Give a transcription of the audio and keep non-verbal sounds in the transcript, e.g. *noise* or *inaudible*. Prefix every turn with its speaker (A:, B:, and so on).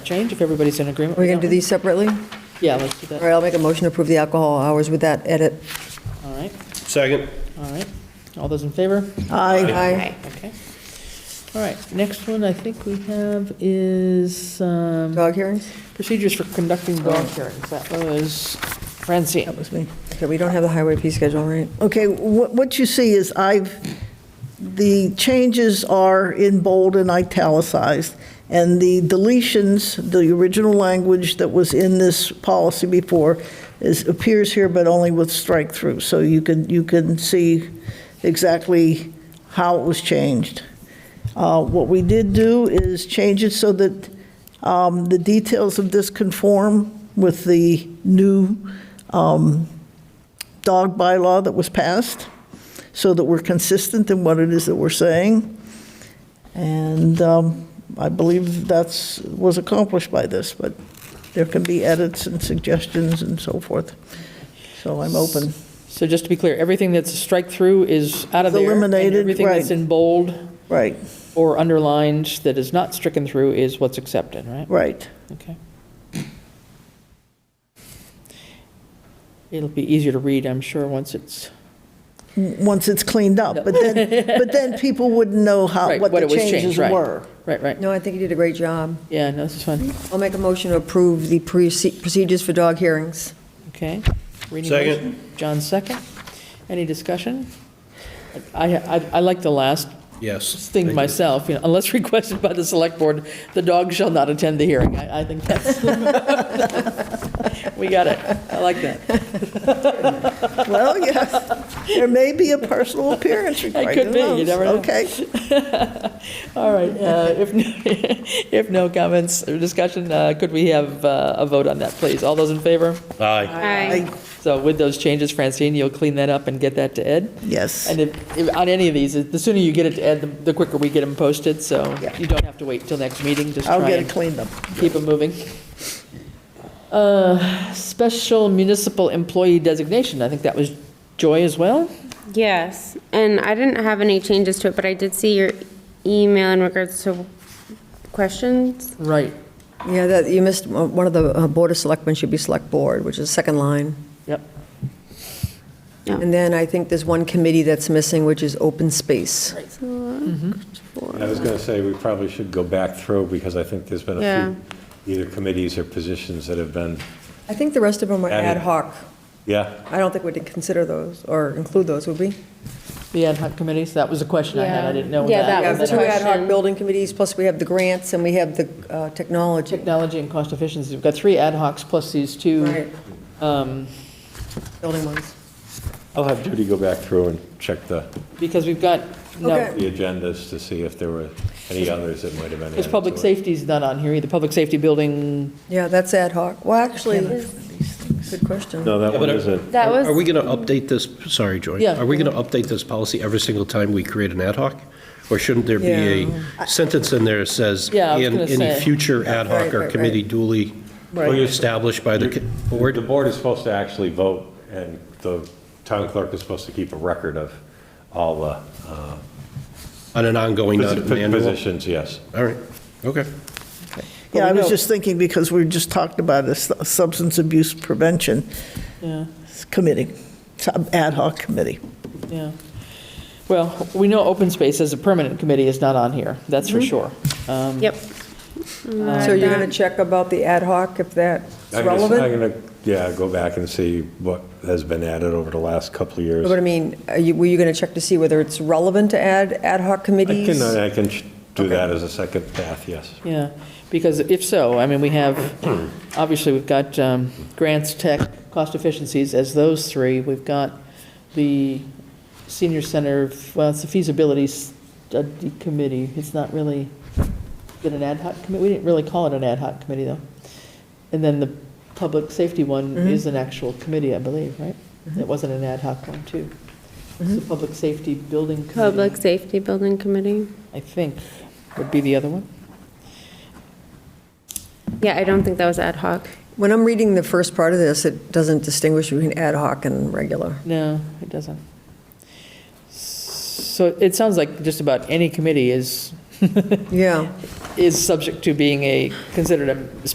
A: change, if everybody's in agreement.
B: Are we
A: with
B: going to
A: that
B: do these separately? All
A: one? Yeah, let's do
B: right,
A: that.
B: I'll make a motion to approve the alcohol hours with that edit.
A: All right,
C: Second.
A: all right. All those in favor?
B: Aye.
D: Okay.
A: Okay. All right, next one I think we have is um,
B: Dog hearings?
A: procedures for conducting dog hearings. That was Francine.
E: That was me.
B: Okay, we don't have the highway P schedule, right?
E: Okay, what, what you see is I've, the changes are in bold and italicized, and the deletions, the original language that was in this policy before, is, appears here, but only with strike-through, so you can, you can see exactly how it was changed. Uh, What we did do is change it so that um, the details of this conform with the new um, dog bylaw that was passed, so that we're consistent in what it is that we're saying. And um, I believe that's, was accomplished by this, but there can be edits and suggestions and so forth. So I'm open.
A: So just to be clear, everything that's a strike through is out of
E: It's
A: there. and
E: eliminated,
A: Everything that's
E: right.
A: in bold
E: Right,
A: or underlined that is not stricken through is what's accepted, right?
E: right.
A: Okay. It'll be easier to read, I'm sure, once it's,
E: once it's cleaned up.
A: *laughs*
E: But then, but then people wouldn't know how,
A: Right,
E: what
A: what
E: the
A: it was changed,
E: changes
A: right.
E: were.
A: right, right.
B: No, I think you did a great job.
A: Yeah, no, this is fun.
B: I'll make a motion to approve the proce- procedures for dog hearings.
A: Okay. Reading
C: Second.
A: motion. John second. Any discussion? I, I I like the last
C: Yes.
A: thing myself, you know, unless requested by the select board, the dog shall not attend the hearing. I, I think that's, *laughs* we got it. I like that.
E: Well, yes, there may be a
A: *laughs*
E: personal appearance required.
A: could
E: who
A: be, you
E: knows?
A: never know.
E: Okay,
A: All right, uh, if, *laughs* if no comments or discussion, uh, could we have uh, a vote on that, please? All those in favor?
C: Aye.
D: Aye.
A: So with those changes, Francine, you'll clean that up and get that to Ed?
E: yes,
A: And if, if- on any of these, the sooner you get it to Ed, the- the quicker we get them posted, so
E: Yeah.
A: you don't have to wait till next meeting, just
E: I'll
A: try
E: get it
A: and
E: cleaned up.
A: keep them moving. Uh, Special municipal employee designation, I think that was Joy as well?
D: Yes, and I didn't have any changes to it, but I did see your email in regards to questions.
A: Right,
B: Yeah, that, you missed, uh, one of the uh, Board of Selectmen should be Select Board, which is second line.
A: yep.
B: And then I think there's one committee that's missing, which is open space.
F: I was going to say, we probably should go back through, because I think there's been
D: Yeah.
F: a few, either committees or positions that have been,
B: I think the rest of them are
F: Added.
B: ad hoc.
F: yeah,
B: I don't think we'd consider those or include those, would we?
A: The ad hoc committees, that was a question I had, I
D: Yeah.
A: didn't know
D: Yeah,
A: that.
D: that
B: Yeah,
D: was the
B: two ad hoc
D: question.
B: building committees, plus we have the grants and we have the uh, technology.
A: Technology and cost efficiency, we've got three ad hocs plus these two.
B: Right,
A: um,
B: building ones.
F: I'll have Judy go back through and check the,
A: Because we've got, no,
B: Okay.
F: the agendas to see if there were any others that might have been added
A: because public
F: to it.
A: safety's not on here either, public safety building,
B: Yeah, that's ad hoc. Well, actually, good question.
F: No, that
C: Yeah,
F: one
C: but I-
F: isn't.
D: That
C: Are we
D: was,
C: going to update this, sorry, Joy,
A: Yeah.
C: are we going to update this policy every single time we create an ad hoc? Or shouldn't there be a sentence in there that says,
A: Yeah, I was
C: "In
A: gonna
C: any
A: say.
C: future
B: Right,
C: ad hoc
B: right,
C: or
B: right.
C: committee duly
E: Right.
C: established by the co-
F: Board-
C: board"?
F: The board is supposed to actually vote, and the town clerk is supposed to keep a record of all the uh,
C: On an ongoing, not an
F: posi-
C: annual?
F: positions, yes.
C: All right, okay.
A: Well, we
E: Yeah, I was
A: know-
E: just thinking, because we just talked about this substance abuse prevention
A: yeah.
E: committee, sub- ad hoc committee.
A: Yeah. Well, we know open space as a permanent committee is not on here, that's for sure. Um,
D: yep.
B: So you're going to check about the ad hoc if that's
F: I'm just- I'm
B: relevant?
F: going to, yeah, go back and see what has been added over the last couple of years.
B: But I mean, are you- were you going to check to see whether it's relevant to add ad hoc
F: I
B: committees?
F: can, I can sh- do that as a second path, yes.
A: Yeah, because if so, I mean, we have, obviously, we've got um, grants, tech, cost efficiencies as those three. We've got the senior center, of- well, it's a feasibility study committee. It's not really, been an ad hoc committee? We didn't really call it an ad hoc committee, though. And then the public safety one is an actual committee, I believe, right? It wasn't an ad hoc one, too. It's the public safety building committee.
D: Public Safety Building Committee.
A: I think, would be the other one.
D: Yeah, I don't think that was ad hoc.
B: When I'm reading the first part of this, it doesn't distinguish between ad hoc and regular.
A: No, it doesn't. So it sounds like just about any committee is *laughs*
B: Yeah,
A: is subject to being a, considered a